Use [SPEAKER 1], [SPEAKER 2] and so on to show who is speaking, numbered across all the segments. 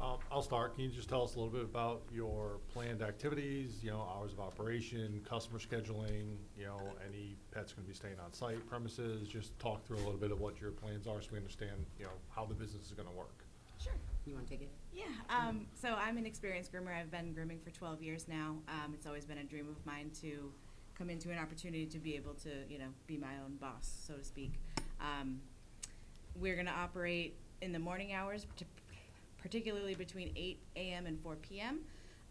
[SPEAKER 1] Um, I'll start. Can you just tell us a little bit about your planned activities, you know, hours of operation, customer scheduling, you know, any pets gonna be staying on site premises? Just talk through a little bit of what your plans are so we understand, you know, how the business is gonna work.
[SPEAKER 2] Sure.
[SPEAKER 3] You want to take it?
[SPEAKER 2] Yeah, um, so I'm an experienced groomer. I've been grooming for 12 years now. Um, it's always been a dream of mine to come into an opportunity to be able to, you know, be my own boss, so to speak. Um, we're going to operate in the morning hours, partic- particularly between 8 a.m. and 4 p.m.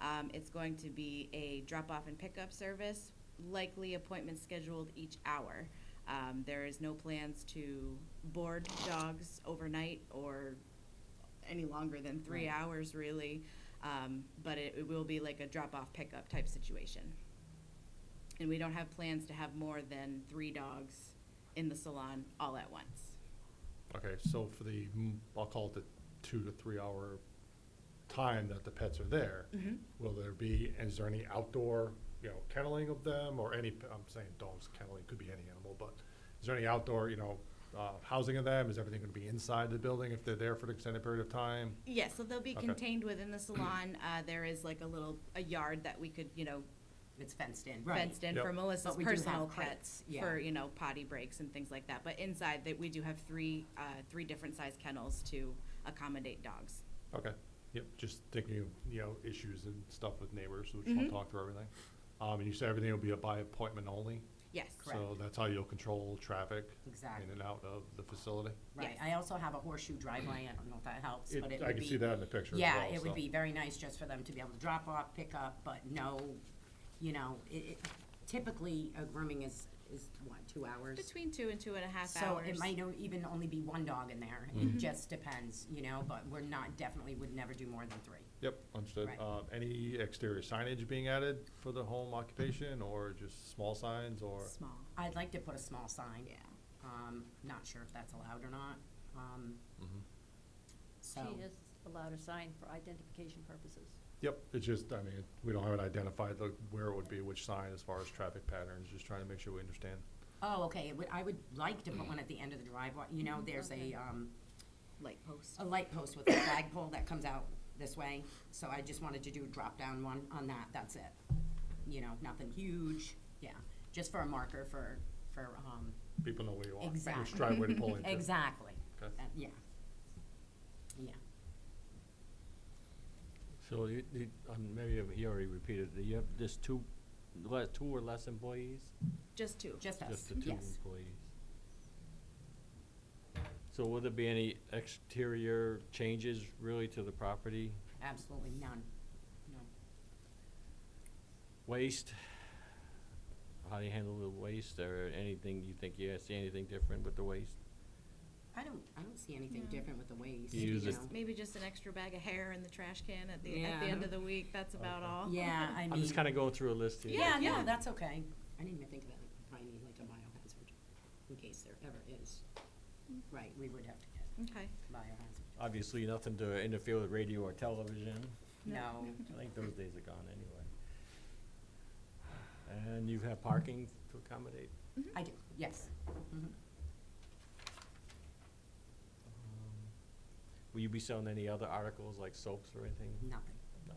[SPEAKER 2] Um, it's going to be a drop off and pickup service, likely appointments scheduled each hour. Um, there is no plans to board dogs overnight or any longer than three
[SPEAKER 3] Right.
[SPEAKER 2] hours, really. Um, but it, it will be like a drop off pickup type situation. And we don't have plans to have more than three dogs in the salon all at once.
[SPEAKER 1] Okay, so for the, mm, I'll call it the two to three hour time that the pets are there,
[SPEAKER 3] Mm-hmm.
[SPEAKER 1] will there be, is there any outdoor, you know, kenneling of them or any, p- I'm saying dogs kenneling, could be any animal, but is there any outdoor, you know, uh, housing of them? Is everything gonna be inside the building if they're there for an extended period of time?
[SPEAKER 2] Yes, so they'll be
[SPEAKER 1] Okay.
[SPEAKER 2] contained within the salon. Uh, there is like a little a yard that we could, you know,
[SPEAKER 3] It's fenced in, right.
[SPEAKER 2] fenced in
[SPEAKER 1] Yep.
[SPEAKER 2] for Melissa's
[SPEAKER 3] But we do have
[SPEAKER 2] personal
[SPEAKER 3] crates,
[SPEAKER 2] pets
[SPEAKER 3] yeah.
[SPEAKER 2] for you know potty breaks and things like that. But inside, that we do have three uh, three different size kennels to accommodate dogs.
[SPEAKER 1] Okay, yep, just thinking, of you know, issues and stuff with neighbors, so we just
[SPEAKER 3] Mm-hmm.
[SPEAKER 1] wanna
[SPEAKER 2] Mhm.
[SPEAKER 1] talk through everything. Um, and you said everything will be a by appointment only?
[SPEAKER 2] Yes,
[SPEAKER 1] So
[SPEAKER 3] Correct.
[SPEAKER 1] that's how you'll control traffic in
[SPEAKER 3] Exactly.
[SPEAKER 1] and out of the facility?
[SPEAKER 3] Right, I also have a horseshoe driveway, I don't know if that helps,
[SPEAKER 1] It-
[SPEAKER 3] but it would
[SPEAKER 1] I
[SPEAKER 3] be.
[SPEAKER 1] can see that in the picture as
[SPEAKER 3] Yeah,
[SPEAKER 1] well,
[SPEAKER 3] it would
[SPEAKER 1] so.
[SPEAKER 3] be very nice just for them to be able to drop off, pick up, but no, you know, it, it- typically, a grooming is, is what, two hours?
[SPEAKER 2] between two and two and a half
[SPEAKER 3] So
[SPEAKER 2] hours.
[SPEAKER 3] it might o- even only be one dog in there, it
[SPEAKER 1] Mm-hmm.
[SPEAKER 3] just depends, you know, but we're not, definitely would never do more than three.
[SPEAKER 1] Yep, understood.
[SPEAKER 3] Right.
[SPEAKER 1] Uh, any exterior signage being added for the home occupation or just small signs or?
[SPEAKER 2] small.
[SPEAKER 3] I'd like to put a small sign.
[SPEAKER 2] Yeah.
[SPEAKER 3] Um, not sure if that's allowed or not, um,
[SPEAKER 1] Mhm.
[SPEAKER 3] so.
[SPEAKER 4] She is allowed a sign for identification purposes.
[SPEAKER 1] Yep, it's just, I mean, we don't have it identified, like where it would be, which sign as far as traffic patterns, just trying to make sure we understand.
[SPEAKER 3] Oh, okay, it would, I would like to put
[SPEAKER 5] Mm.
[SPEAKER 3] one at the end of the driveway, you know, there's a,
[SPEAKER 4] Okay.
[SPEAKER 3] um,
[SPEAKER 2] Mm-hmm. light post.
[SPEAKER 3] a light post with a flagpole that comes out this way, so I just wanted to do a drop-down one on that, that's it. You know, nothing huge, yeah, just for a marker for, for, um,
[SPEAKER 1] People know where you are. Which
[SPEAKER 3] Exactly.
[SPEAKER 1] driveway to pull into.
[SPEAKER 3] exactly,
[SPEAKER 1] Okay.
[SPEAKER 3] that- yeah. Yeah,
[SPEAKER 5] So you, you, um, maybe he already repeated, it. you have just two, le- two or less employees?
[SPEAKER 2] Just two.
[SPEAKER 3] just us,
[SPEAKER 5] Just the two
[SPEAKER 3] yes.
[SPEAKER 5] employees. So will there be any exterior changes really to the property?
[SPEAKER 3] Absolutely none, no.
[SPEAKER 5] Waste? How do you handle the waste or anything, you think you see anything different with the waste?
[SPEAKER 3] I don't, I don't see anything
[SPEAKER 2] No.
[SPEAKER 3] different with the waist,
[SPEAKER 5] You
[SPEAKER 3] you
[SPEAKER 5] use it-
[SPEAKER 3] know.
[SPEAKER 2] Maybe just an extra bag of hair in the trash can at the at the
[SPEAKER 3] Yeah.
[SPEAKER 2] end of the week. That's about all.
[SPEAKER 3] Yeah, I mean.
[SPEAKER 5] I'm just kinda going through a list here.
[SPEAKER 3] Yeah, no,
[SPEAKER 2] Yeah.
[SPEAKER 3] that's okay. I didn't even think of that. We probably need like a biohazard in case there ever is. Right, we would have to get
[SPEAKER 2] Okay.
[SPEAKER 3] biohazard.
[SPEAKER 5] Obviously, nothing to interfere with radio or television.
[SPEAKER 3] No,
[SPEAKER 5] I think those days are gone anyway. And you have parking to accommodate?
[SPEAKER 3] I do, yes. Mhm.
[SPEAKER 5] Um, Will you be selling any other articles like soaps or anything?
[SPEAKER 3] Nothing.
[SPEAKER 5] No.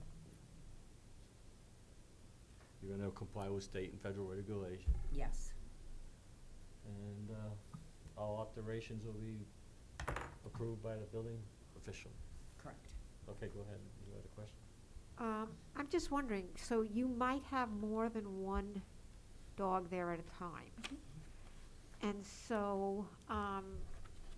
[SPEAKER 5] You're gonna comply with state and federal regulation,
[SPEAKER 3] Yes,
[SPEAKER 5] and, uh, all operations will be approved by the building official.
[SPEAKER 3] correct.
[SPEAKER 5] Okay, go ahead, you had a question?
[SPEAKER 6] Um, I'm just wondering, so you might have more than one dog there at a time.
[SPEAKER 3] Mm-hmm.
[SPEAKER 6] And so, um,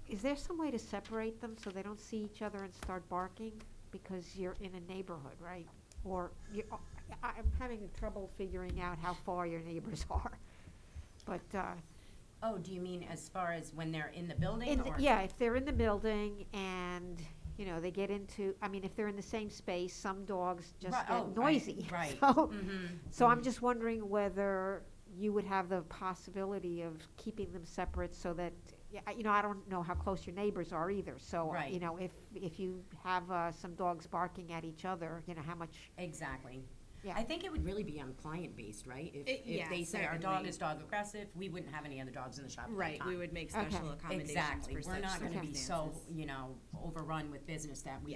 [SPEAKER 6] is there some way to separate them so they don't see each other and start barking? Because you're in a neighborhood, right? Or you, uh, I, I'm having trouble figuring out how far your neighbors are. But, uh,
[SPEAKER 3] Oh, do you mean as far as when they're in the building
[SPEAKER 6] in the-
[SPEAKER 3] or?
[SPEAKER 6] yeah, if they're in the building and, you know, they get into, I mean, if they're in the same space, some dogs just
[SPEAKER 3] Right, oh,
[SPEAKER 6] get
[SPEAKER 3] right,
[SPEAKER 6] noisy.
[SPEAKER 3] right.
[SPEAKER 6] So,
[SPEAKER 3] Mhm.
[SPEAKER 6] so I'm just wondering whether you would have the possibility of keeping them separate so that, yeah, I- you know, I don't know how close your neighbors are either. So, uh, you
[SPEAKER 3] Right.
[SPEAKER 6] know, if, if you have uh, some dogs barking at each other, you know, how much,
[SPEAKER 3] Exactly.
[SPEAKER 6] yeah.
[SPEAKER 3] I think it would really be on client based, right? If,
[SPEAKER 2] It-
[SPEAKER 3] if they
[SPEAKER 2] yeah,
[SPEAKER 3] say our dog
[SPEAKER 2] certainly.
[SPEAKER 3] is dog aggressive, we wouldn't have any other dogs in the shop at that
[SPEAKER 2] Right. We
[SPEAKER 3] time.
[SPEAKER 2] would make
[SPEAKER 6] Okay.
[SPEAKER 2] special accommodations
[SPEAKER 3] Exactly.
[SPEAKER 2] for
[SPEAKER 3] We're
[SPEAKER 2] such
[SPEAKER 3] not gonna be so,
[SPEAKER 2] circumstances.
[SPEAKER 3] you know, overrun with business that we